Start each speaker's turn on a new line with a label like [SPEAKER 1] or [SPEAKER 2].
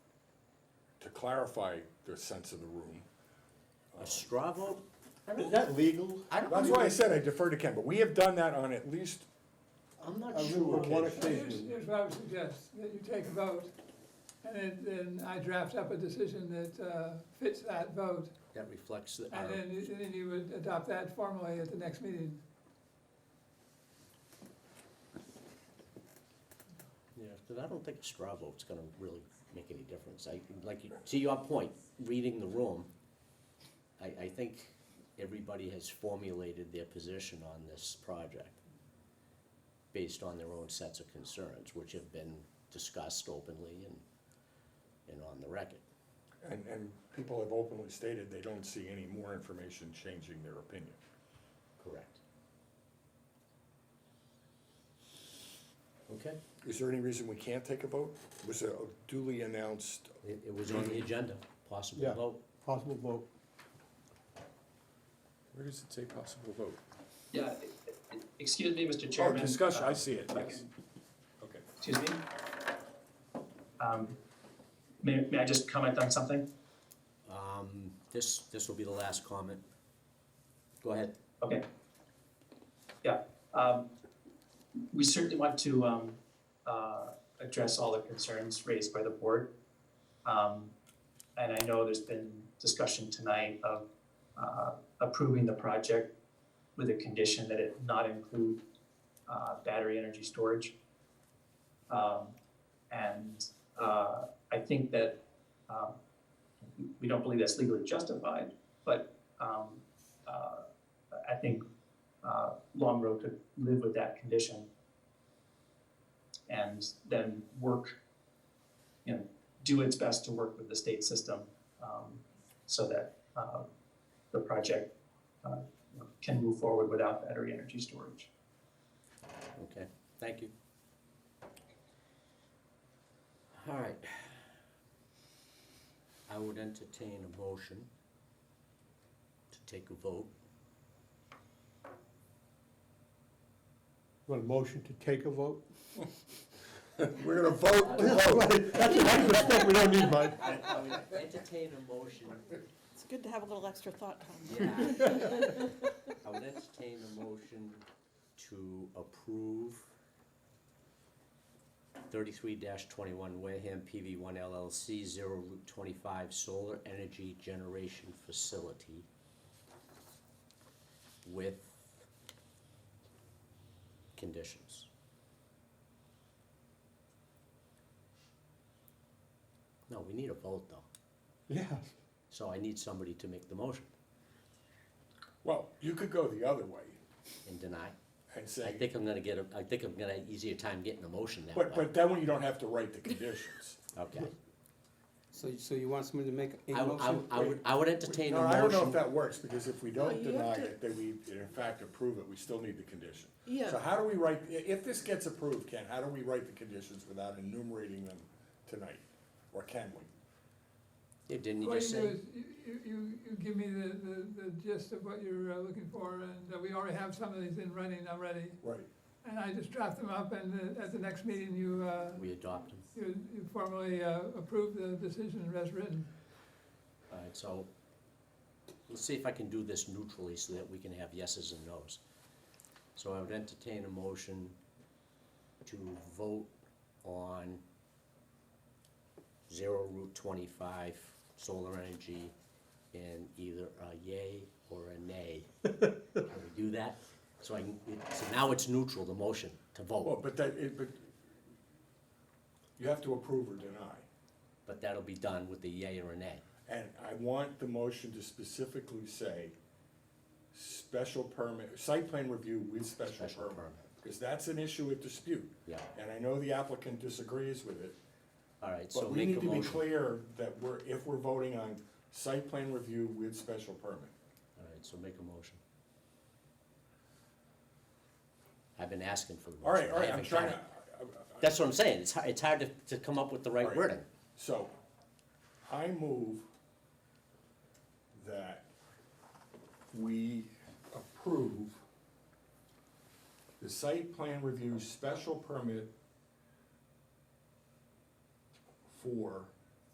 [SPEAKER 1] clarify the sense of the room.
[SPEAKER 2] A straw vote?
[SPEAKER 3] Is that legal?
[SPEAKER 2] I don't.
[SPEAKER 1] That's why I said I defer to Ken, but we have done that on at least,
[SPEAKER 2] I'm not
[SPEAKER 3] A
[SPEAKER 2] sure.
[SPEAKER 3] little one
[SPEAKER 2] Casey.
[SPEAKER 3] occasion.
[SPEAKER 4] Here's, here's what I would suggest, that you take a vote, and then, then I draft up a decision that, uh, fits that vote,
[SPEAKER 2] That reflects the, um,
[SPEAKER 4] and then, you- and then you would adopt that formally at the next meeting.
[SPEAKER 2] yeah, because I don't think a straw vote's gonna really make any difference. I, like, you- to your point, reading the room, I, I think everybody has formulated their position on this project based on their own sets of concerns, which have been discussed openly and, and on the record.
[SPEAKER 1] and, and people have openly stated they don't see any more information changing their opinion.
[SPEAKER 2] Correct. Okay,
[SPEAKER 1] Is there any reason we can't take a vote? Was it duly announced?
[SPEAKER 2] it, it was on the agenda, possible
[SPEAKER 3] Yeah.
[SPEAKER 2] vote.
[SPEAKER 3] Possible vote.
[SPEAKER 5] Where does it say possible vote?
[SPEAKER 6] Yeah, e- e- excuse me, Mr.
[SPEAKER 5] Oh,
[SPEAKER 6] Chairman.
[SPEAKER 5] discussion,
[SPEAKER 6] Uh,
[SPEAKER 5] I see it, yes. Okay.
[SPEAKER 6] Excuse me? Um, May, may I just comment on something?
[SPEAKER 2] Um, this, this will be the last comment. Go ahead.
[SPEAKER 6] Okay. Yeah, um, we certainly want to, um, uh, address all the concerns raised by the board. Um, and I know there's been discussion tonight of, uh, approving the project with a condition that it not include, uh, battery energy storage. Um, and, uh, I think that, um, we don't believe that's legally justified, but, um, uh, I think uh, Long Row could live with that condition and then work, you know, do its best to work with the state system um, so that uh, the project uh, you know, can move forward without battery energy storage.
[SPEAKER 2] Okay, thank you. All right. I would entertain a motion to take a vote.
[SPEAKER 3] Want a motion to take a vote?
[SPEAKER 1] We're gonna vote to vote.
[SPEAKER 3] That's an extra step we don't need, Mike.
[SPEAKER 2] I would entertain a motion,
[SPEAKER 7] It's good to have a little extra thought time.
[SPEAKER 2] yeah. I would entertain a motion to approve thirty-three twenty-one Wareham PV one LLC, zero Route twenty-five Solar Energy Generation Facility with conditions. No, we need a vote though,
[SPEAKER 3] Yeah.
[SPEAKER 2] so I need somebody to make the motion
[SPEAKER 1] Well, you could go the other way
[SPEAKER 2] and deny.
[SPEAKER 1] and
[SPEAKER 2] I
[SPEAKER 1] say,
[SPEAKER 2] think I'm gonna get a, I think I'm gonna have easier time getting a motion that way.
[SPEAKER 1] but, but then you don't have to write the conditions.
[SPEAKER 2] Okay.
[SPEAKER 8] So, so you want somebody to make a
[SPEAKER 2] I, would- I
[SPEAKER 8] motion?
[SPEAKER 2] would- I would, I would entertain
[SPEAKER 1] No,
[SPEAKER 2] a
[SPEAKER 1] I don't know if
[SPEAKER 2] motion.
[SPEAKER 1] that works, because if we
[SPEAKER 7] No,
[SPEAKER 1] don't
[SPEAKER 7] you have
[SPEAKER 1] deny
[SPEAKER 7] to-
[SPEAKER 1] it, then we, in fact, approve it, we still need the condition. So
[SPEAKER 7] Yeah,
[SPEAKER 1] how do we write, i- if this gets approved, Ken, how do we write the conditions without enumerating them tonight? Or can we?
[SPEAKER 2] Yeah, Didn't you
[SPEAKER 4] What
[SPEAKER 2] just
[SPEAKER 4] you do
[SPEAKER 2] say?
[SPEAKER 4] is, you, you- you, you give me the, the, the gist of what you're uh, looking for, and uh, we already have some of these in running already,
[SPEAKER 1] Right.
[SPEAKER 4] and I just draft them up, and uh, at the next meeting, you, uh,
[SPEAKER 2] We adopt them.
[SPEAKER 4] you you formally uh, approve the decision as written.
[SPEAKER 2] All right, so let's see if I can do this neutrally so that we can have yeses and nos. So I would entertain a motion to vote on zero Route twenty-five solar energy in either a yay or a nay. Can we do that? So I, can- so now it's neutral, the motion to
[SPEAKER 1] Well,
[SPEAKER 2] vote,
[SPEAKER 1] but that, it, but you have to approve or deny.
[SPEAKER 2] but that'll be done with the yay or a nay.
[SPEAKER 1] And I want the motion to specifically say, special permit, site plan review with special
[SPEAKER 2] Special
[SPEAKER 1] permit.
[SPEAKER 2] permit.
[SPEAKER 1] Because that's an issue of dispute.
[SPEAKER 2] Yeah.
[SPEAKER 1] And I know the applicant disagrees with it,
[SPEAKER 2] All right, so
[SPEAKER 1] but we
[SPEAKER 2] make
[SPEAKER 1] need to
[SPEAKER 2] a
[SPEAKER 1] be
[SPEAKER 2] motion. All
[SPEAKER 1] clear that we're, if we're voting on site plan review with special permit.
[SPEAKER 2] right, so make a motion. I've been asking for the motion.
[SPEAKER 1] All right, all
[SPEAKER 2] I
[SPEAKER 1] right, I'm
[SPEAKER 2] haven't
[SPEAKER 1] trying
[SPEAKER 2] got
[SPEAKER 1] to,
[SPEAKER 2] it. That's what I'm saying, it's, hi- it's hard to, to come up with the right
[SPEAKER 1] Right.
[SPEAKER 2] wording.
[SPEAKER 1] so, I move that we approve the site plan review special permit for